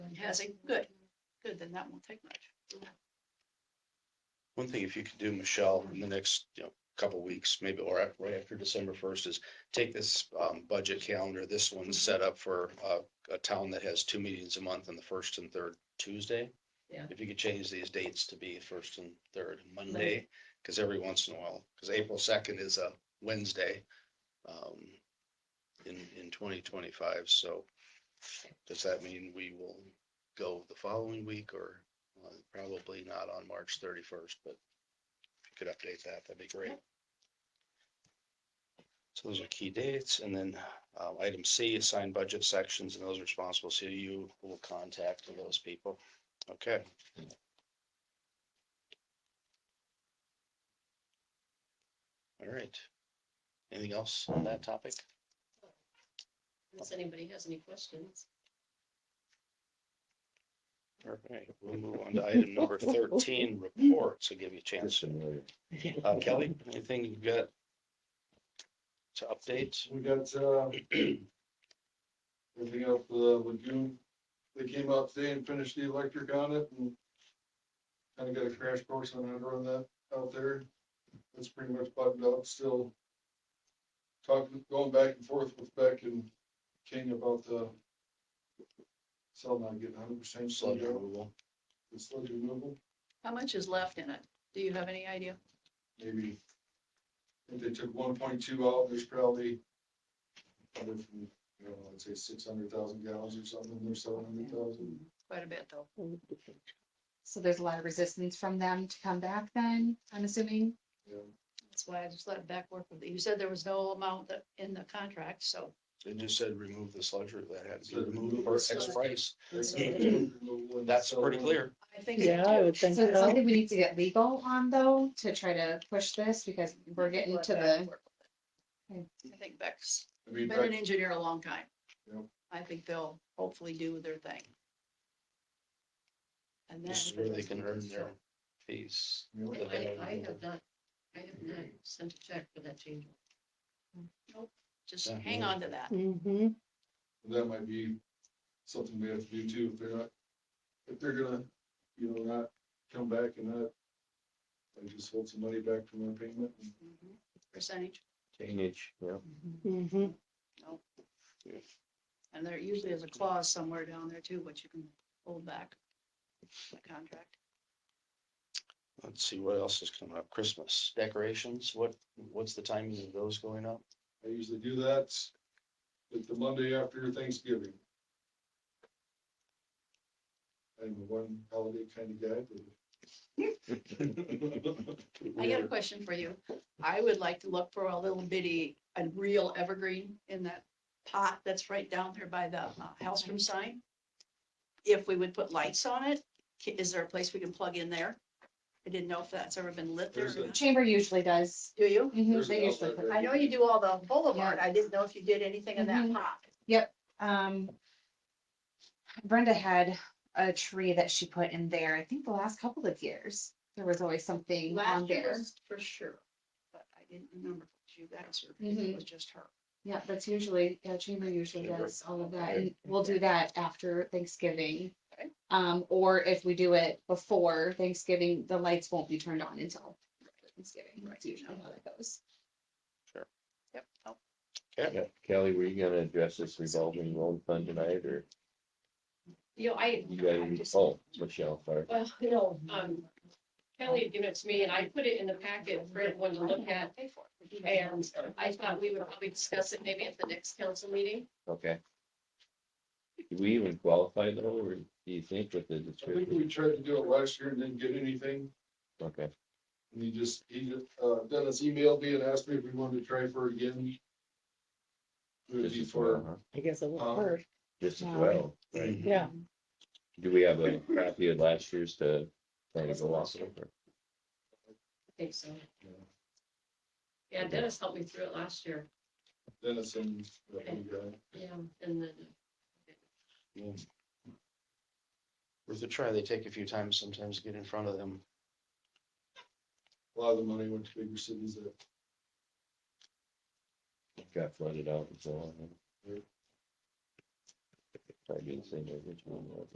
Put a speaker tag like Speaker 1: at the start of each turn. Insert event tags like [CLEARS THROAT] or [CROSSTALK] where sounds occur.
Speaker 1: Hazing, good, good, then that won't take much.
Speaker 2: One thing, if you could do, Michelle, in the next, you know, couple weeks, maybe, or at- right after December first, is take this um, budget calendar, this one's set up for uh, a town that has two meetings a month on the first and third Tuesday.
Speaker 3: Yeah.
Speaker 2: If you could change these dates to be first and third Monday,
Speaker 3: Monday.
Speaker 2: because every once in a while, because April second is a Wednesday um, in, in twenty twenty-five, so does that mean we will go the following week or uh, probably not on March thirty-first, but if you could update that, that'd be great. So those are key dates, and then um, item C, assign budget sections, and those responsible, so you will contact those people. Okay. All right. Anything else on that topic?
Speaker 3: Unless anybody has any questions.
Speaker 2: All right, we'll move on to item number thirteen, reports. I'll give you a chance. Uh, Kelly, anything you've got to update?
Speaker 4: We got, uh, [CLEARS THROAT] everything else, the lagoon, they came out today and finished the electric on it and kind of got a crash course on how to run that out there. It's pretty much buttoned up, still talking, going back and forth with Beck and King about the cell not getting hundred percent
Speaker 2: Sludge
Speaker 4: sludge, out,
Speaker 2: removal.
Speaker 4: the sludge removal,
Speaker 1: How much is left in it? Do you have any idea?
Speaker 4: maybe. I think they took one point two out, there's probably another from you know, I'd say six hundred thousand gallons or something, or seven hundred thousand.
Speaker 1: Quite a bit, though.
Speaker 5: So there's a lot of resistance from them to come back then, I'm assuming.
Speaker 1: That's why I just let Beck work with it. You said there was no amount that, in the contract, so
Speaker 2: They just said remove the sludge re- that had to be
Speaker 4: Sludge
Speaker 2: removed for
Speaker 4: removal.
Speaker 2: X price.
Speaker 4: Yeah.
Speaker 2: That's pretty clear.
Speaker 1: I think.
Speaker 6: Yeah, I would
Speaker 5: So
Speaker 6: think
Speaker 5: it's
Speaker 6: so.
Speaker 5: something we need to get legal on though, to try to push this because we're getting
Speaker 1: Let
Speaker 5: to
Speaker 1: Beck
Speaker 5: the,
Speaker 1: work with it. I think Beck's
Speaker 4: I mean,
Speaker 1: been an
Speaker 4: back-
Speaker 1: engineer a long time.
Speaker 4: Yep.
Speaker 1: I think they'll hopefully do their thing. And then.
Speaker 2: This is where they can earn their fees.
Speaker 4: you know,
Speaker 3: I, I have not, I have not sent a check for that change.
Speaker 1: Just
Speaker 2: Yeah.
Speaker 1: hang on to that.
Speaker 6: Mm-hmm.
Speaker 4: That might be something we have to do too, if they're not, if they're gonna, you know, not come back and not, like just hold some money back from their payment.
Speaker 1: Percentage,
Speaker 6: Mm-hmm.
Speaker 1: and there usually is a clause somewhere down there too, which you can hold back. The contract.
Speaker 2: Let's see what else is coming up. Christmas decorations, what, what's the timing of those going up?
Speaker 4: I usually do that, like the Monday after Thanksgiving. I'm a one holiday kind of guy, but.
Speaker 1: I got a question for you. I would like to look for a little bitty, a real evergreen in that pot that's right down there by the uh, Hellstrom sign. If we would put lights on it, ca- is there a place we can plug in there? I didn't know if that's ever been lit there. or
Speaker 4: There's a-
Speaker 1: not.
Speaker 5: chamber usually does.
Speaker 1: Do you?
Speaker 5: Mhm,
Speaker 4: There's an
Speaker 5: They usually
Speaker 4: outlet
Speaker 5: put
Speaker 4: there.
Speaker 1: I know you do all the boulevard. I didn't know if you did anything in that
Speaker 3: Mm-hmm.
Speaker 5: Mhm.
Speaker 1: pot.
Speaker 5: um, Brenda had a tree that she put in there, I think the last couple of years. There was always something on
Speaker 1: Last year
Speaker 5: there.
Speaker 1: was for sure, but I didn't remember if you guys or if it
Speaker 3: Mm-hmm.
Speaker 5: Mhm.
Speaker 1: was just her.
Speaker 5: Yeah, that's usually, yeah, chamber usually
Speaker 2: Chamber.
Speaker 5: does all of that,
Speaker 2: Okay.
Speaker 5: and we'll do that after Thanksgiving.
Speaker 1: Okay.
Speaker 5: Um, or if we do it before Thanksgiving, the lights won't be turned on until Thanksgiving,
Speaker 1: Right.
Speaker 5: that's usually how that goes.
Speaker 1: Yep. Oh,
Speaker 7: Yeah, Kelly, were you gonna address this revolving loan fund tonight, or
Speaker 3: You know, I,
Speaker 7: you guys, oh, Michelle, sorry.
Speaker 3: well, you know, um, Kelly had given it to me and I put it in the packet for everyone to look at.
Speaker 1: pay for it.
Speaker 3: And I thought we would probably discuss it maybe at the next council meeting.
Speaker 7: Okay. Do we even qualify though, or do you think with the
Speaker 4: I think
Speaker 7: description?
Speaker 4: we tried to do it last year and didn't get anything.
Speaker 7: Okay,
Speaker 4: And he just, he, uh, Dennis emailed me and asked me if we wanted to try for it again. It would
Speaker 7: this
Speaker 4: be
Speaker 7: is
Speaker 4: for,
Speaker 7: well, huh?
Speaker 6: I guess it
Speaker 4: Um,
Speaker 6: won't hurt.
Speaker 7: This is
Speaker 5: Yeah.
Speaker 7: well,
Speaker 2: Right.
Speaker 6: Yeah.
Speaker 7: do we have a copy of last year's to kind of go off of? or-
Speaker 3: I think so. Yeah, Dennis helped me through it last year.
Speaker 4: Dennis and, uh, the other guy.
Speaker 3: Yeah, and then
Speaker 2: Worth a try. They take a few times sometimes to get in front of them.
Speaker 4: a lot of the money went to bigger cities that
Speaker 7: Got flooded out and so on. Probably the same as which one was.